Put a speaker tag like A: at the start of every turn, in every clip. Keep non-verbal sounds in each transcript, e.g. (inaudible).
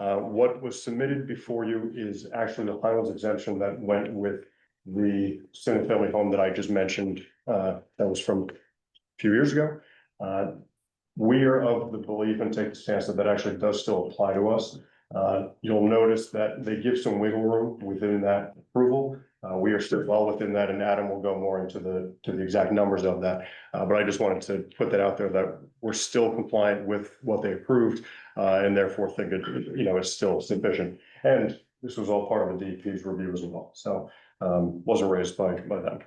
A: Uh, what was submitted before you is actually the Highlands exemption that went with the single family home that I just mentioned, uh, that was from a few years ago. Uh, we are of the belief and take the stance that that actually does still apply to us. Uh, you'll notice that they give some wiggle room within that approval. Uh, we are still well within that and Adam will go more into the, to the exact numbers of that. Uh, but I just wanted to put that out there that we're still compliant with what they approved, uh, and therefore think it, you know, it's still sufficient. And this was all part of the DEP's review as well, so, um, wasn't raised by, by them.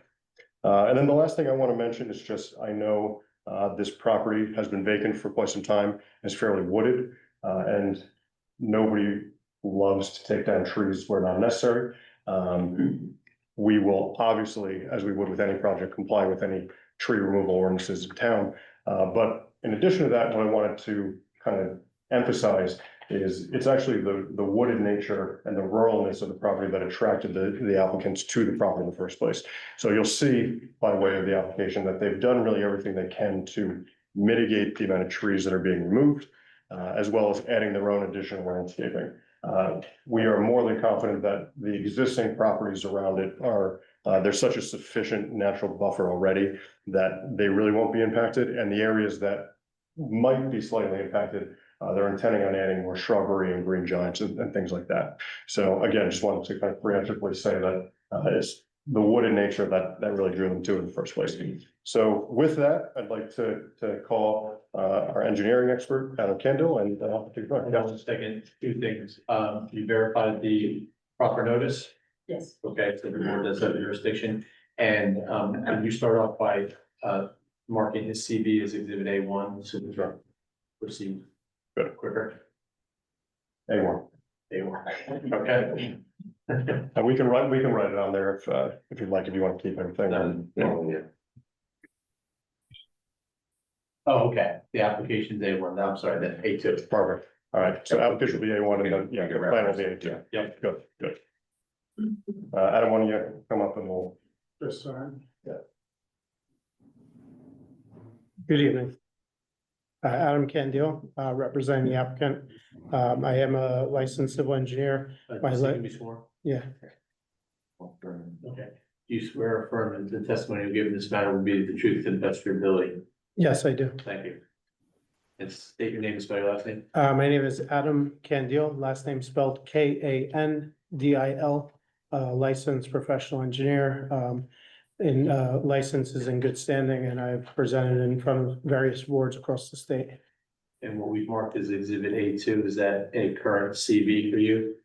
A: Uh, and then the last thing I want to mention is just, I know, uh, this property has been vacant for quite some time, it's fairly wooded, uh, and nobody loves to take down trees where not necessary. Um, we will obviously, as we would with any project, comply with any tree removal ordinances in town. Uh, but in addition to that, what I wanted to kind of emphasize is it's actually the, the wooded nature and the ruralness of the property that attracted the, the applicants to the property in the first place. So you'll see by way of the application that they've done really everything they can to mitigate the amount of trees that are being removed, uh, as well as adding their own additional landscaping. Uh, we are more than confident that the existing properties around it are, uh, there's such a sufficient natural buffer already that they really won't be impacted, and the areas that might be slightly impacted, uh, they're intending on adding more shrubbery and green giants and, and things like that. So again, just wanted to kind of preemptively say that, uh, it's the wooded nature that, that really drew them to it in the first place. So with that, I'd like to, to call, uh, our engineering expert, Adam Kendall, and, uh, to go
B: Hold on a second, two things. Um, you verified the proper notice,
C: Yes,
B: okay, so the board does have jurisdiction. And, um, can you start off by, uh, marking his CV as exhibit A one, so we can proceed
A: Good.
B: quicker?
A: anyone.
B: A one, okay? (laughs)
A: And we can write, we can write it on there if, uh, if you'd like, if you want to keep everything.
B: Oh, okay, the application's A one, I'm sorry, then A two.
A: Perfect. All right, so application will be A one and then, yeah,
D: You
A: the
D: can
A: plan will be A
D: reference it,
A: two.
B: yeah.
A: Good, good. Uh, Adam, why don't you come up and we'll,
E: This time?
A: Yeah.
E: Good evening. Uh, Adam Candiel, uh, representing the applicant. Um, I am a licensed civil engineer,
B: Uh,
E: My
B: so
E: le-
B: you can be sworn.
E: yeah,
B: Okay, do you swear or affirm that the testimony you give in this matter will be the truth and best of your ability?
E: yes, I do.
B: Thank you. And state your name and spell your last name.
E: Uh, my name is Adam Candiel, last name spelled K A N D I L, uh, licensed professional engineer. Um, and, uh, license is in good standing and I've presented in front of various boards across the state.
B: And what we've marked as exhibit A two, is that a current CV for you?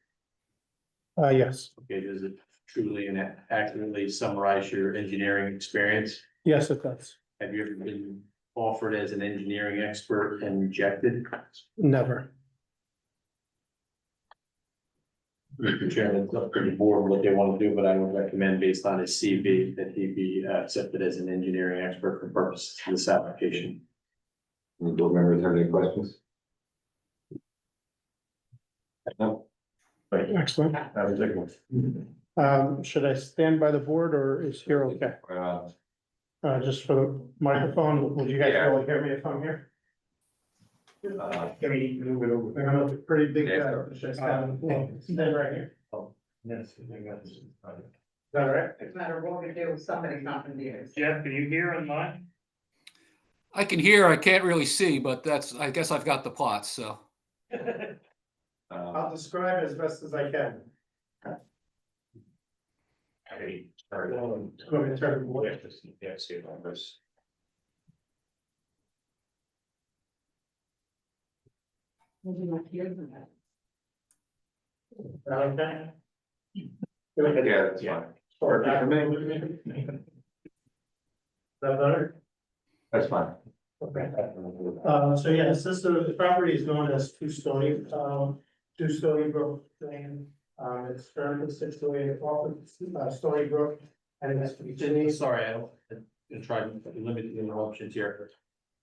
E: Uh, yes,
B: Okay, does it truly and accurately summarize your engineering experience?
E: yes, it does.
B: Have you ever been offered as an engineering expert and rejected?
E: Never.
B: Mr. Chairman, it's up to the board what they want to do, but I would recommend based on his CV that he be uh, accepted as an engineering expert for purposes of this application.
D: Any board members have any questions? No?
A: thank you.
E: Excellent.
A: Adam, take one.
E: Um, should I stand by the board or is here okay?
D: Uh,
E: Uh, just for the microphone, would you guys be able to hear me if I'm here?
D: uh,
E: Let me move it over. I'm a pretty big guy.
D: Yeah.
E: Should I stand? Well, stand right here.
B: Yes.
E: Is that all right?
C: no matter what we do, somebody's not gonna be there.
F: Jeff, are you here online?
G: I can hear, I can't really see, but that's, I guess I've got the plots, so.
D: uh,
E: I'll describe as best as I can. Go ahead, turn it away.
C: Maybe not here than that.
E: Okay.
D: Yeah, that's fine.
E: Or back.
D: Yeah, maybe.
E: That better?
D: That's fine.
E: Okay. Uh, so yes, this, uh, the property is known as Two Stony, um, Two Stony Brook Lane. Um, it's currently situated off of, uh, Stony Brook and it's Virginia.
B: Sorry, I'll, I'm gonna try to limit the interruptions here.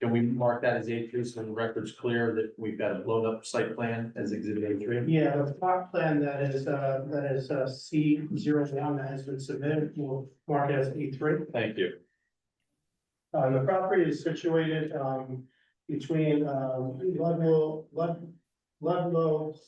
B: Can we mark that as A three so the record's clear that we've got a blown up site plan as exhibit A three?
E: Yeah, the plot plan that is, uh, that is, uh, C zero one that has been submitted, we'll mark it as E three.
B: Thank you.
E: Uh, the property is situated, um, between, um, Ludlow, Lud- Ludlow